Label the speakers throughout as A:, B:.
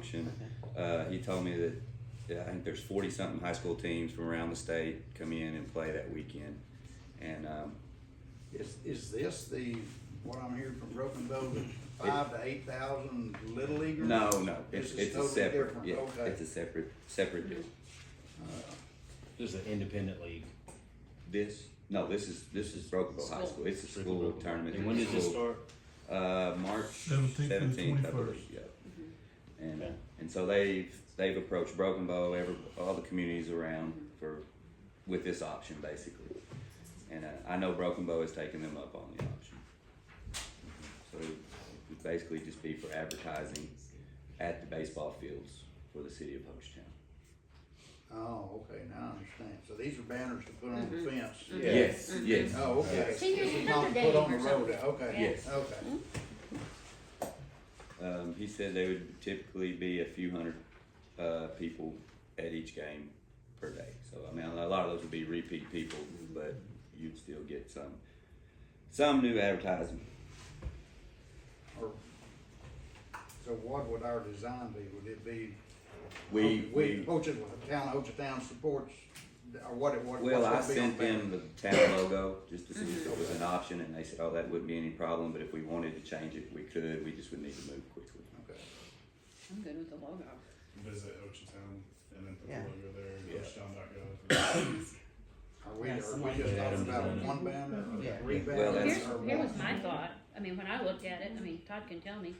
A: function. Uh, he told me that yeah, I think there's 40 something high school teams from around the state come in and play that weekend. And um,
B: Is, is this the, what I'm hearing from Broken Bow, the five to eight thousand little leaguers?
A: no, no, it's, it's
B: This is
A: a
B: totally
A: separate,
B: different,
A: yeah,
B: okay.
A: it's a separate, separate deal.
B: Uh,
C: This is an independent league.
A: This, no, this is this is Brokenville High
D: School.
A: School. It's a school tournament.
C: And when does this
A: School.
C: start?
A: Uh, March
E: 17th to the
A: seventeenth, I
E: 21st.
A: believe, yeah. And,
C: Okay.
A: and so they've, they've approached Broken Bow, every, all the communities around for, with this option basically. And uh, I know Broken Bow has taken them up on the option. So it would basically just be for advertising at the baseball fields for the city of Hochtown.
B: Oh, okay, now I understand. So these are banners to put on
D: Mm-hmm.
B: the fence?
A: Yes, yes.
B: Oh, okay.
D: Two years
B: This is
D: ago,
B: not
D: they
B: put on
D: were
B: the road,
D: something.
B: Okay.
A: Yes.
B: Okay.
A: Um, he said there would typically be a few hundred uh, people at each game per day. So I mean, a lot of those would be repeat people, but you'd still get some some new advertising.
B: Or- So what would our design be? Would it be?
A: We we
B: Ocha, town, Ocha town supports, or what, it- what?
A: well, I
B: what's gonna
A: sent
B: be on
A: them the town logo just to see if it was an option, and they said, "Oh, that wouldn't be any problem, but if we wanted to change it, we could. We just would need to move quickly."
B: there? Okay.
D: I'm good with the logo.
F: visit Ochetown and then put
G: Yeah.
F: the logo there,
A: Yeah.
F: ochetown.gov.
B: Are we,
G: Yeah,
B: are
G: someone
B: we just
G: did that
B: talking about
C: design.
B: one band
G: Yeah.
B: or three
A: Well,
B: bands?
D: Here's,
B: or
D: here
B: one?
D: was my thought, I mean, when I looked at it, I mean, Todd can tell me,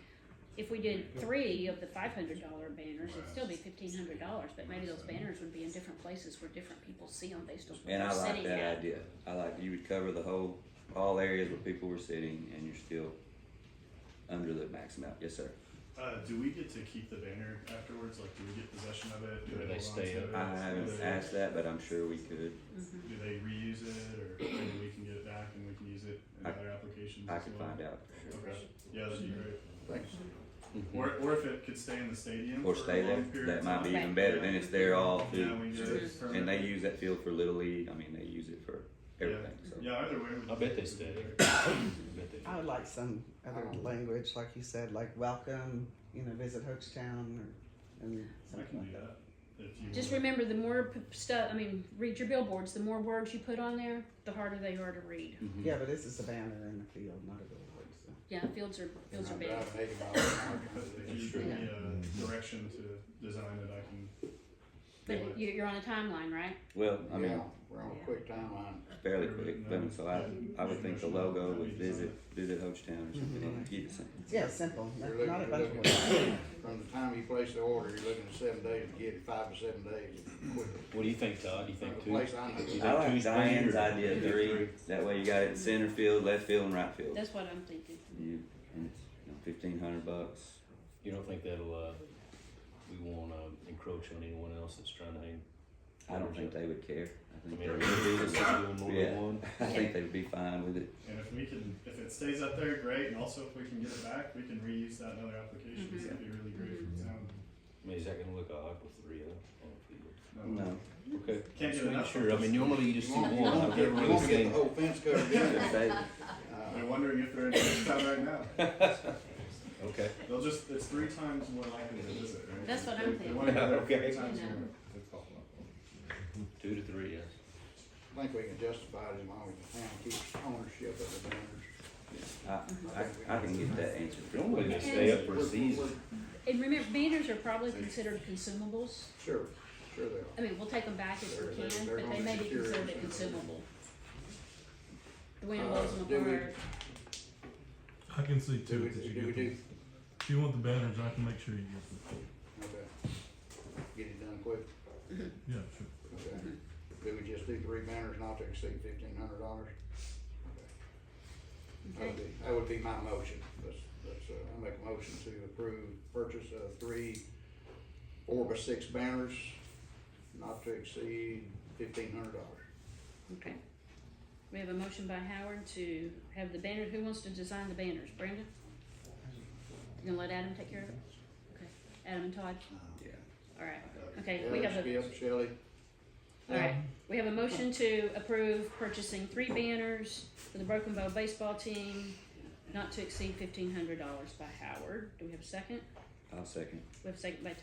D: if we did three of the five hundred dollar banners, it'd still be fifteen hundred dollars, but maybe those banners would be in different places where different people see them based on where
A: And I
D: they're
A: like
D: sitting
A: that
D: at.
A: idea. I like you would cover the whole, all areas where people were sitting, and you're still under the max amount. Yes, sir.
F: Uh, do we get to keep the banner afterwards? Like, do we get possession of it? Do
C: Or
F: they
C: they
F: hold on
C: stay
F: to
C: up?
F: it?
A: I
F: Do
A: haven't
F: they-
A: asked that, but I'm sure we could.
D: Mm-hmm.
F: Do they reuse it, or maybe we can get it back and we can use it in
A: I-
F: other applications?
A: I
F: as
A: could
F: well?
A: find out.
F: Okay. Yeah, that'd be great.
B: Thanks.
F: Or, or if it could stay in the stadium
A: Or
F: for a
A: stay there.
F: long period
A: That
F: of
A: might be
F: time.
A: even better. Then it's there all
F: Yeah,
A: through.
F: we get it
A: And they
F: permanent.
A: use that field for Little League. I mean, they use it for everything. So
F: Yeah, either way. we
C: I bet they
F: could-
C: stay. I bet they.
G: I would like some other
B: Um,
G: language, like you said, like welcome, you know, visit Hochtown or and
F: I
G: something
F: can do
G: like that.
F: that. If you
D: Just
F: want.
D: remember, the more p- stuff, I mean, read your billboards, the more words you put on there, the harder they are to read.
G: Yeah, but this is a banner in the field, not a billboard. So.
D: Yeah, fields are,
B: I'm
D: fields are big.
B: driving eighty miles an hour.
F: If you give me a direction to design it, I can
D: But you, you're on a timeline, right?
A: well, I mean,
B: Yeah, we're on a quick timeline.
A: fairly quick. I mean, so I, I would think the logo would visit visit Hochtown or something. and Get it something.
G: Yeah, simple.
B: You're
G: Not,
B: looking,
G: not a
B: you're
G: bunch
B: looking,
G: of words.
B: from the time you place the order, you're looking at seven days to get it, five to seven days. quick.
C: What do you think, Todd? Do you
B: From the
C: think two?
B: place I know.
A: I like
C: Tuesday
A: Diane's
C: or-
A: idea
C: Yeah,
A: three.
C: three.
A: That way you got it in center field, left field, and right field.
D: That's what I'm thinking.
A: You, and it's you know, fifteen hundred bucks.
C: You don't think that'll, uh, we won't, um, encroach on anyone else that's trying to hang?
A: I don't think they would care. I
C: I
A: think
C: mean, are
A: they
C: we doing this,
A: would.
C: doing more
A: Yeah.
C: than one?
A: I think they'd be fine with it.
F: And if we can, if it stays up there, great, and also if we can get it back, we can reuse that in
D: Mm-hmm.
F: other applications, that'd be really great for the town.
C: I mean, is that gonna look odd with three of them on the field?
A: No.
C: Okay.
F: Can't
C: Just
F: get
C: make
F: enough.
C: sure. I mean, normally you just do
B: You won't- you won't
C: one.
B: get-
C: Every
B: you won't get
C: game.
B: the whole fence covered in it.
A: They-
B: Uh,
F: They're wondering if they're in this town right now.
C: Okay.
F: They'll just, it's three times more likely to visit, right?
D: That's what I'm
F: They- They
D: thinking.
F: wanna go there
C: Okay.
F: three times
D: Yeah.
F: more.
C: Two to three, yes.
B: I think we can justify it as long as the town keeps ownership of the banners.
A: I, uh, I, I can get that answered. pretty
C: Normally
A: quick.
C: they stay up for a
B: We're-
C: season.
B: we're-
D: And remember, banners are probably considered consumables.
B: Sure, sure they are.
D: I mean, we'll take them back if we can, but they may be considered a consumable. The way it was in the bar,
E: I can see
B: Do
E: to
B: we,
E: it that you
B: do we
E: get
B: do?
E: them. If you want the banners, I can make sure you get them.
B: Okay. Get it done quick.
E: Yeah, sure.
B: Okay. Do we just do three banners not to exceed fifteen hundred dollars? That
D: okay?
B: would be, that would be my motion. Let's, let's, uh, I make a motion to approve purchase of three four by six banners not to exceed fifteen hundred dollars.
D: Okay. We have a motion by Howard to have the banner, who wants to design the banners? Brandon? You gonna let Adam take care of it? Okay, Adam and Todd,
A: Yeah.
D: alright, okay, we have a,
B: Skip, Shelley,
D: alright, we have a motion to approve purchasing three banners for the Broken Bow baseball team, not to exceed fifteen hundred dollars by Howard. Do we have a second?
A: I'll second.
D: We have a second by